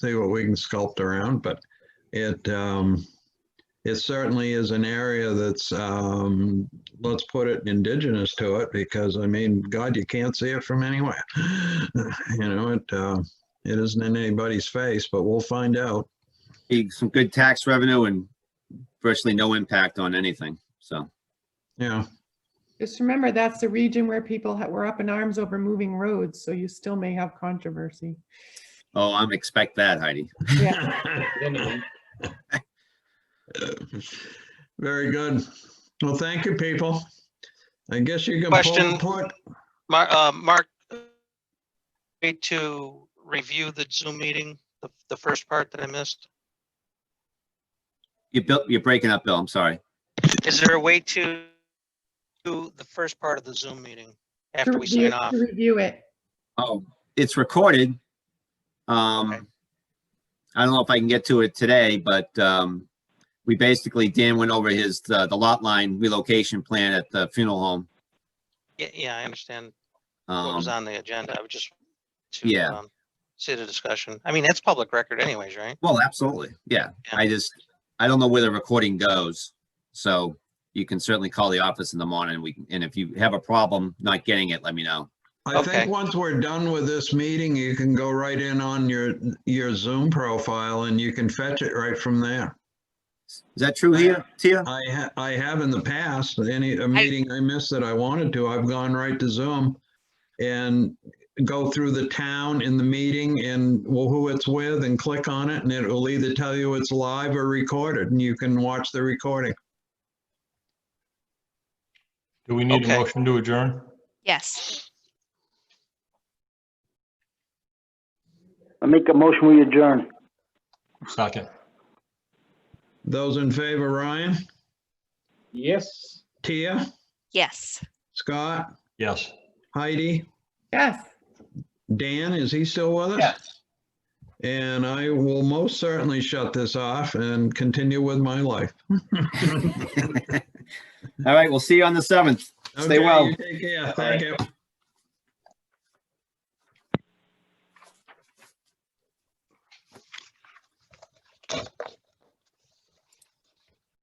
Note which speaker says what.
Speaker 1: see what we can sculpt around, but it, um, it certainly is an area that's, um, let's put it indigenous to it because I mean, God, you can't see it from anywhere. You know, it, uh, it isn't in anybody's face, but we'll find out.
Speaker 2: Be some good tax revenue and virtually no impact on anything, so.
Speaker 1: Yeah,
Speaker 3: Just remember, that's the region where people ha- were up in arms over moving roads, so you still may have controversy.
Speaker 2: Oh, I'm expect that, Heidi.
Speaker 3: Yeah,
Speaker 1: very good. Well, thank you, people. I guess you can. pull-
Speaker 4: Question.
Speaker 1: put-
Speaker 4: Mar- uh, Mark, way to review the Zoom meeting, the, the first part that I missed.
Speaker 2: You built, you're breaking up, Bill, I'm sorry.
Speaker 4: Is there a way to do the first part of the Zoom meeting
Speaker 3: To
Speaker 4: after we
Speaker 3: review
Speaker 4: sign off?
Speaker 3: to review it.
Speaker 2: Oh, it's recorded.
Speaker 4: Okay.
Speaker 2: Um, I don't know if I can get to it today, but, um, we basically, Dan went over his, uh, the lot line relocation plan at the funeral home.
Speaker 4: Yeah, yeah, I understand what was
Speaker 2: Um,
Speaker 4: on the agenda. I was just to
Speaker 2: Yeah.
Speaker 4: um, see the discussion. I mean, that's public record anyways, right?
Speaker 2: well, absolutely, yeah.
Speaker 4: Yeah.
Speaker 2: I just, I don't know where the recording goes. So you can certainly call the office in the morning. We, can- and if you have a problem not getting it, let me know.
Speaker 1: I
Speaker 4: Okay.
Speaker 1: think once we're done with this meeting, you can go right in on your, your Zoom profile and you can fetch it right from there.
Speaker 2: Is that true here, Tia?
Speaker 1: I ha- I have in the past, any, a meeting I missed that I wanted to, I've gone right to Zoom and go through the town in the meeting and well, who it's with and click on it and it will either tell you it's live or recorded and you can watch the recording.
Speaker 5: Do we need a
Speaker 4: Okay.
Speaker 5: motion to adjourn?
Speaker 6: Yes.
Speaker 7: I make a motion, we adjourn.
Speaker 5: Second.
Speaker 1: Those in favor, Ryan,
Speaker 7: Yes.
Speaker 1: Tia,
Speaker 6: Yes.
Speaker 1: Scott,
Speaker 5: Yes.
Speaker 1: Heidi,
Speaker 3: Yes.
Speaker 1: Dan, is he still with us? And I will most certainly shut this off and continue with my life.
Speaker 2: All right, we'll see you on the seventh. Stay
Speaker 1: Okay,
Speaker 2: well.
Speaker 1: you Take care. Thank you.